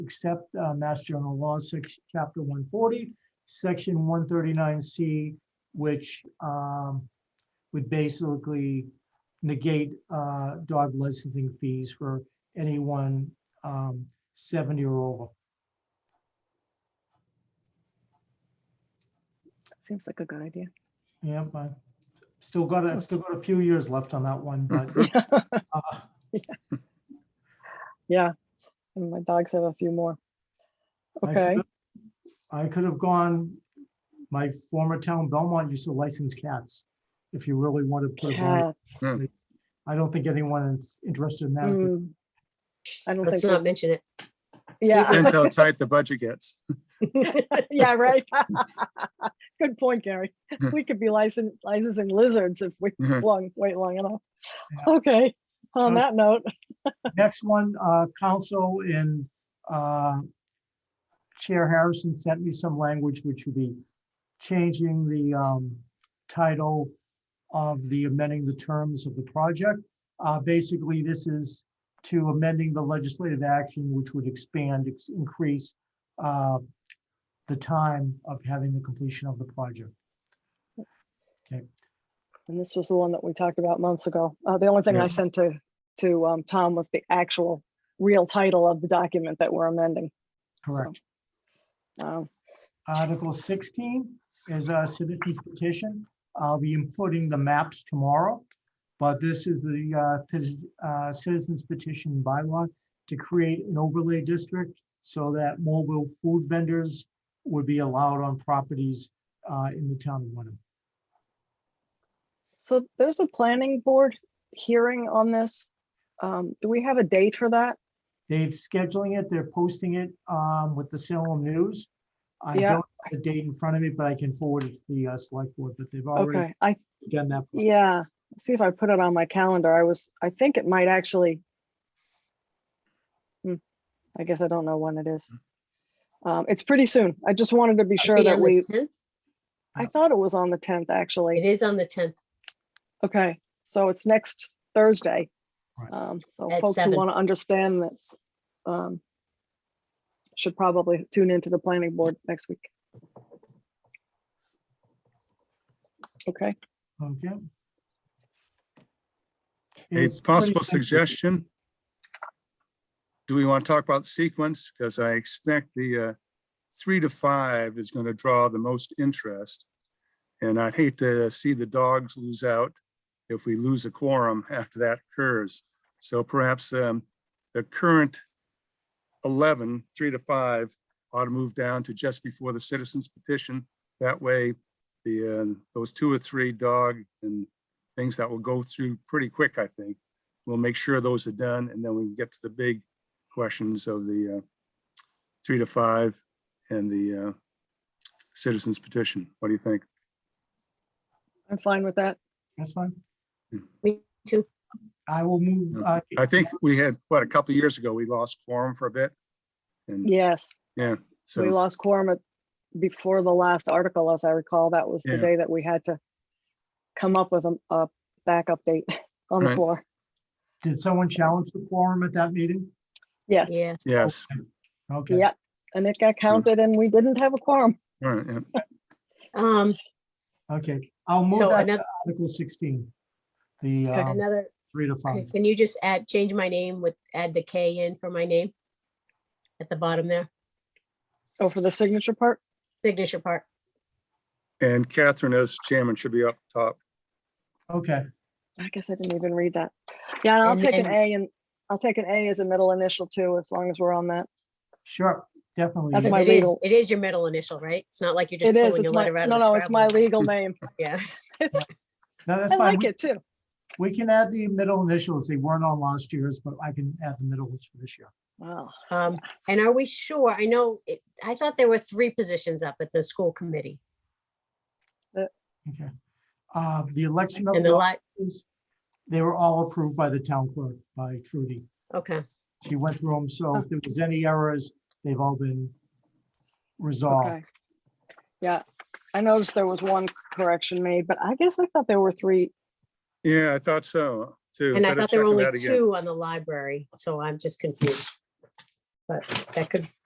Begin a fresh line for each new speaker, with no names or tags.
accept uh, Mass General Law, six, chapter one forty, section one thirty-nine C, which um, would basically negate uh, dog licensing fees for anyone um, seventy or over.
Seems like a good idea.
Yeah, but still got, a-
Yes.
still got a few years left on that one, but uh,
Yeah, and my dogs have a few more.
I could
Okay,
have- I could have gone, my former town Belmont used to license cats, if you really want to put a bar-
cats.
I don't think anyone is interested in that. at this
Mm. I don't
Let's
think,
not
that-
mention it.
yeah,
Depends how tight the budget gets.
yeah, right. Good point, Gary. We could be licensing, licensing lizards if we
Mhm.
long, wait long enough.
Yeah. Oh.
Okay, on
Okay.
that note,
Next one, uh, council and, uh, Chair Harrison sent me some language which would be changing the, um, title of the amending the terms of the project. Uh, basically, this is to amending the legislative action which would expand, ex- increase, uh, the time of having the completion of the project.
and this was the one that we talked about months ago. Uh, the only thing I
Yes.
sent to, to, um, Tom was the actual real title of the document that we're amending.
Correct.
Um,
Article sixteen is a citizen's petition. I'll be inputting the maps tomorrow. But this is the uh, pis- uh, citizens petition bylaw to create an overlay district so that mobile food vendors would be allowed on properties uh, in the town of Wenham.
So there's a planning board hearing on this. Um, do we have a date for that?
They've scheduling it, they're posting it um, with the Salem News. I
Yeah.
don't have the date in front of me, but I can forward it to the uh, select board, but they've already
Okay, I,
done that.
yeah, see if I put it on my calendar. I was, I think it might actually. Hmm, I guess I don't know when it is. Um, it's pretty soon. I just wanted to be sure
Be
that
on the
we,
10th?
I thought it was on the tenth,
It
actually.
is on the tenth.
Okay, so it's next Thursday.
Right.
Um, so
At
folks who
seven.
want to understand this, um, should probably tune into the planning board next week. Okay,
Okay.
A
It's pretty
possible
simple.
suggestion? Do we want to talk about sequence? Because I expect the uh, three to five is going to draw the most interest. And I'd hate to see the dogs lose out if we lose a quorum after that occurs. So perhaps um, the current 11, three to five ought to move down to just before the citizens petition. That way, the, uh, those two or three dog and things that will go through pretty quick, I think. We'll make sure those are done and then we can get to the big questions of the uh, three to five and the uh, citizens petition. What do you think?
I'm fine with that.
That's fine.
Me too.
I will move. uh,
I think we had, what, a couple of years ago, we lost quorum for a bit. And
Yes, we
so,
lost quorum at, before the last article, as I recall, that was the
Yeah.
day that we had to come up with a, a backup date on the
Right.
floor.
Did someone challenge the quorum at that meeting?
Yes,
Yeah.
yes.
Okay.
yeah, and it got counted and we didn't have a quorum.
all right, yeah.
Um,
Okay, I'll move
so
that to
another,
Article sixteen. The
Okay.
uh,
another,
three to five.
um,
okay, can you just add, change my name with, add the K in for my name? At the bottom there,
Oh, for the signature part?
signature part.
And Catherine as chairman should be up top.
Okay,
I guess I didn't even read that. Yeah, and I'll
And
take an
then-
A and I'll take an A as a middle initial too, as long as we're on that.
sure, definitely.
That's
yes.
Because
my
it is,
legal-
it is your middle initial, right? It's not like you're just
It is,
pulling a
it's my,
letter out
no,
of
no,
a
it's my
Scrabble.
legal name.
Yeah,
It's,
No, that's
I
fine.
like
We-
it too.
We can add the middle initials. They weren't on last year's, but I can add the middles for this year.
Wow.
um, and are we sure? I know, it- I thought there were three positions up at the school committee
Okay. Uh, The election
Oh,
of
and the
the
lot,
officers, they were all approved by the town clerk, by Trudy.
okay,
She went through them, so if there was any errors, they've all been resolved.
Okay. Yeah, I noticed there was one correction made, but I guess I thought there were three.
Yeah, I thought so, too.
and I
Better
thought there
check
were
on
only
that again.
two on the library, so I'm just confused. but that could